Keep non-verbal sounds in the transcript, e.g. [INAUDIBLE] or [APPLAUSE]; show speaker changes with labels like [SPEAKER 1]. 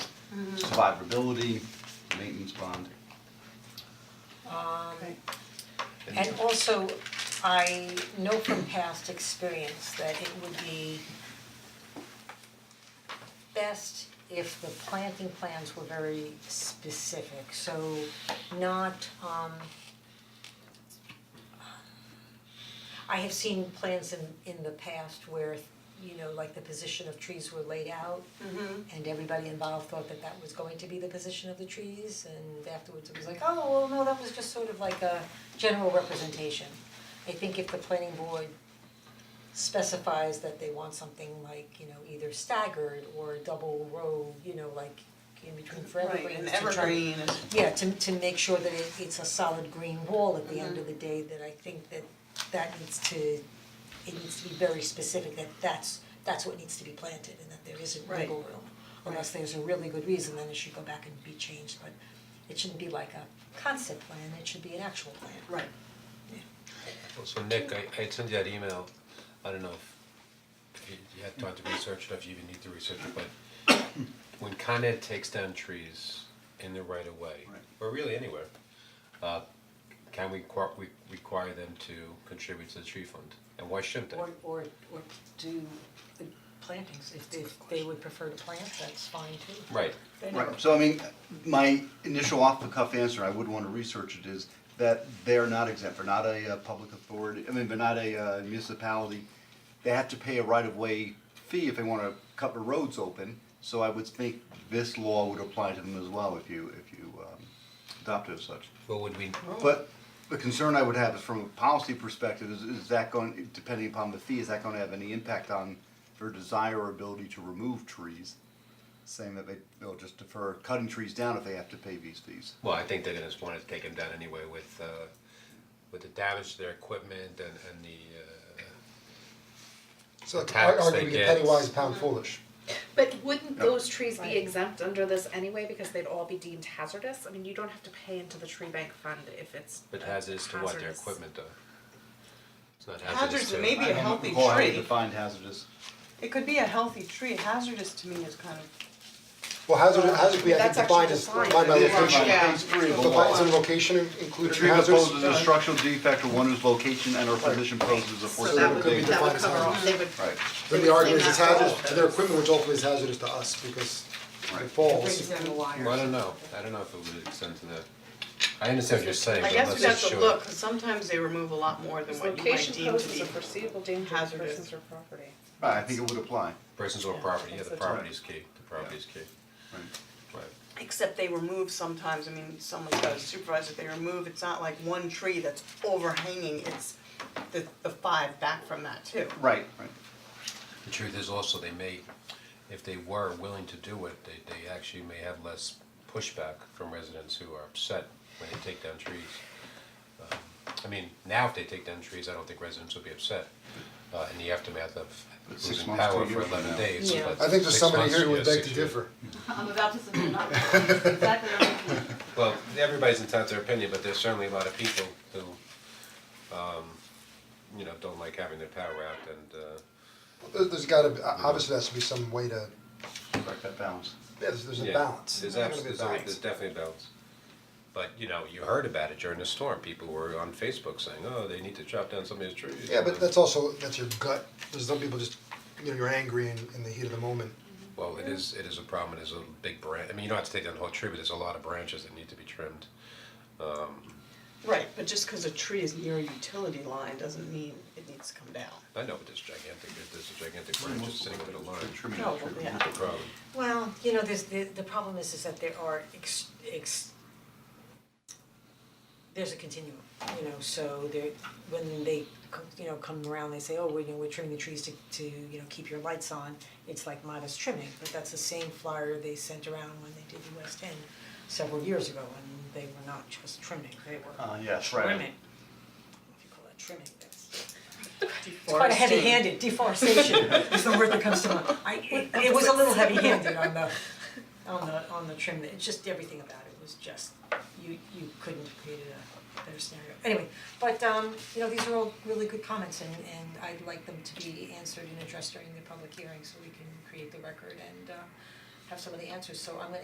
[SPEAKER 1] survivability, maintenance bond.
[SPEAKER 2] And also, I know from past experience that it would be best if the planting plans were very specific, so not um I have seen plans in in the past where, you know, like the position of trees were laid out and everybody involved thought that that was going to be the position of the trees and afterwards it was like, oh, well, no, that was just sort of like a general representation. I think if the planning board specifies that they want something like, you know, either staggered or double row, you know, like in between for
[SPEAKER 3] Right,
[SPEAKER 2] evergreens
[SPEAKER 3] and
[SPEAKER 2] to try to-
[SPEAKER 3] evergreen is,
[SPEAKER 2] yeah, to to make sure that it it's a solid green wall at the end of the day, that I think that that needs to, it needs to be very specific, that that's that's what needs to be planted and that there isn't
[SPEAKER 3] Right.
[SPEAKER 2] wiggle room. Unless there's a really good reason, then it should go back and be changed, but it shouldn't be like a concept plan, it should be an actual plan.
[SPEAKER 3] right,
[SPEAKER 4] Well, so Nick, I I had sent you that email, I don't know if if you you had time to research it, if you even need to research it, but when Con Ed takes down trees in the right of way,
[SPEAKER 1] Right.
[SPEAKER 4] or really anywhere, uh can we require we require them to contribute to the tree fund? And why shouldn't they?
[SPEAKER 2] Or or or do the plantings, if if they would prefer to plant, that's fine too.
[SPEAKER 4] Right,
[SPEAKER 1] Right, so I mean, my initial off the cuff answer, I would wanna research it, is that they're not exempt, they're not a uh, public authority, I mean, they're not a uh, municipality. They have to pay a right of way fee if they wanna cut the roads open, so I would think this law would apply to them as well if you, if you um, adopt it as such.
[SPEAKER 4] but would we,
[SPEAKER 1] But the concern I would have is from a policy perspective, is is that going, depending upon the fee, is that gonna have any impact on their desire or ability to remove trees? Saying that they, they'll just defer cutting trees down if they have to pay these fees.
[SPEAKER 4] well, I think they're gonna just wanna take them down anyway with uh with the damage to their equipment and and the uh
[SPEAKER 5] So like
[SPEAKER 4] tax they
[SPEAKER 5] arguing
[SPEAKER 4] get.
[SPEAKER 5] penny wise, pound foolish.
[SPEAKER 6] But wouldn't
[SPEAKER 1] No.
[SPEAKER 6] those trees be exempt under this anyway, because they'd all be deemed hazardous? I mean, you don't have to pay into the tree bank fund if it's
[SPEAKER 4] but hazardous to what, their
[SPEAKER 6] hazardous.
[SPEAKER 4] equipment though? It's not hazardous
[SPEAKER 3] hazardous,
[SPEAKER 4] to.
[SPEAKER 3] it may be a healthy
[SPEAKER 1] I don't recall how they
[SPEAKER 3] tree,
[SPEAKER 1] defined hazardous.
[SPEAKER 3] it could be a healthy tree, hazardous to me is kind of,
[SPEAKER 5] Well, hazard, hazard we I think
[SPEAKER 6] That's
[SPEAKER 5] defined
[SPEAKER 6] actually
[SPEAKER 5] as,
[SPEAKER 6] defined.
[SPEAKER 5] defined by
[SPEAKER 6] It
[SPEAKER 1] is
[SPEAKER 5] location.
[SPEAKER 1] defined. Yeah.
[SPEAKER 5] So Defines a location in-
[SPEAKER 1] The
[SPEAKER 5] including
[SPEAKER 1] tree that
[SPEAKER 5] hazards.
[SPEAKER 1] poses a structural defect or one whose location and or position poses a
[SPEAKER 5] So that
[SPEAKER 1] foreseeable
[SPEAKER 5] would be
[SPEAKER 1] danger.
[SPEAKER 5] defined as hazardous.
[SPEAKER 7] they would
[SPEAKER 1] Right,
[SPEAKER 5] Then the argument is it's hazardous to their equipment, which ultimately is hazardous to us because if
[SPEAKER 1] Right.
[SPEAKER 5] it falls.
[SPEAKER 2] Brings down the wires.
[SPEAKER 4] Well, I don't know, I don't know if it would extend to that. I understand what you're saying,
[SPEAKER 3] I
[SPEAKER 4] but
[SPEAKER 3] guess
[SPEAKER 4] let's
[SPEAKER 3] we have
[SPEAKER 4] just
[SPEAKER 3] to
[SPEAKER 4] show
[SPEAKER 3] look,
[SPEAKER 4] it.
[SPEAKER 3] 'cause sometimes they remove a lot more than
[SPEAKER 6] This
[SPEAKER 3] what you might
[SPEAKER 6] location
[SPEAKER 3] deem to
[SPEAKER 6] poses
[SPEAKER 3] be.
[SPEAKER 6] a foreseeable danger to
[SPEAKER 3] hazardous.
[SPEAKER 6] persons or property.
[SPEAKER 1] right, I think it would apply,
[SPEAKER 4] Persons or property, yeah,
[SPEAKER 6] that's
[SPEAKER 4] the
[SPEAKER 6] the term.
[SPEAKER 4] property is key, the property is key,
[SPEAKER 1] right.
[SPEAKER 4] right.
[SPEAKER 3] Except they remove sometimes, I mean, someone's got a supervisor, they remove, it's not like one tree that's overhanging, it's the the five back from that too.
[SPEAKER 1] Right, right.
[SPEAKER 4] The truth is also, they may, if they were willing to do it, they they actually may have less pushback from residents who are upset when they take down trees. Um, I mean, now if they take down trees, I don't think residents will be upset uh in the aftermath of
[SPEAKER 1] But six
[SPEAKER 4] losing
[SPEAKER 1] months to a
[SPEAKER 4] power for
[SPEAKER 1] year from
[SPEAKER 4] eleven
[SPEAKER 1] now.
[SPEAKER 4] days,
[SPEAKER 2] Yeah.
[SPEAKER 4] but
[SPEAKER 5] I think there's
[SPEAKER 4] six
[SPEAKER 5] somebody
[SPEAKER 4] months,
[SPEAKER 5] here who
[SPEAKER 4] yeah,
[SPEAKER 5] would beg
[SPEAKER 4] six
[SPEAKER 5] to
[SPEAKER 4] years.
[SPEAKER 5] differ.
[SPEAKER 7] I'm about to submit an article. exactly what I'm thinking.
[SPEAKER 4] Well, everybody's entitled to their opinion, but there's certainly a lot of people who, um, you know, don't like having their power out and, uh,
[SPEAKER 5] There- There's gotta, be- obviously there has to be some way to,
[SPEAKER 1] Strike that balance.
[SPEAKER 5] yeah, there's, there's a
[SPEAKER 4] yeah,
[SPEAKER 5] balance.
[SPEAKER 4] There's
[SPEAKER 5] There's
[SPEAKER 4] abs-
[SPEAKER 5] gotta be a
[SPEAKER 4] there's, a-
[SPEAKER 5] balance.
[SPEAKER 4] there's definitely a balance. But, you know, you heard about it during the storm, people were on Facebook saying, oh, they need to chop down somebody's trees.
[SPEAKER 5] Yeah, but that's also, that's your gut. There's some people just, you know, you're angry in, in the heat of the moment.
[SPEAKER 4] Well, it is, it is a problem, it is a big branch, I mean, you don't have to take down the whole tree, but there's a lot of branches that need to be trimmed.
[SPEAKER 3] Right, but just because a tree is near a utility line doesn't mean it needs to come down.
[SPEAKER 4] I know, but there's gigantic, there's a gigantic branch just sitting with a line,
[SPEAKER 1] Trimming
[SPEAKER 3] No,
[SPEAKER 1] the tree.
[SPEAKER 3] yeah.
[SPEAKER 4] it's a problem.
[SPEAKER 2] Well, you know, there's the the problem is is that there are ex ex there's a continuum, you know, so there when they co- you know come around, they say, oh, we're you know, we're trimming the trees to to, you know, keep your lights on. It's like modest trimming, but that's the same flyer they sent around when they did the West End several years ago, and they were not just trimming, they were
[SPEAKER 1] Uh, yes, right.
[SPEAKER 2] trimming. If you call that trimming, that's it's quite a heavy-handed deforestation [LAUGHS] is the word that comes to mind. I, it, it was a little heavy-handed on the, on the, on the trim, it's just everything about it was just, you, you couldn't have created a better scenario. Anyway, but, um, you know, these are all really good comments and, and I'd like them to be answered and addressed during the public hearing so we can create the record and, uh, have some of the answers. So I'm gonna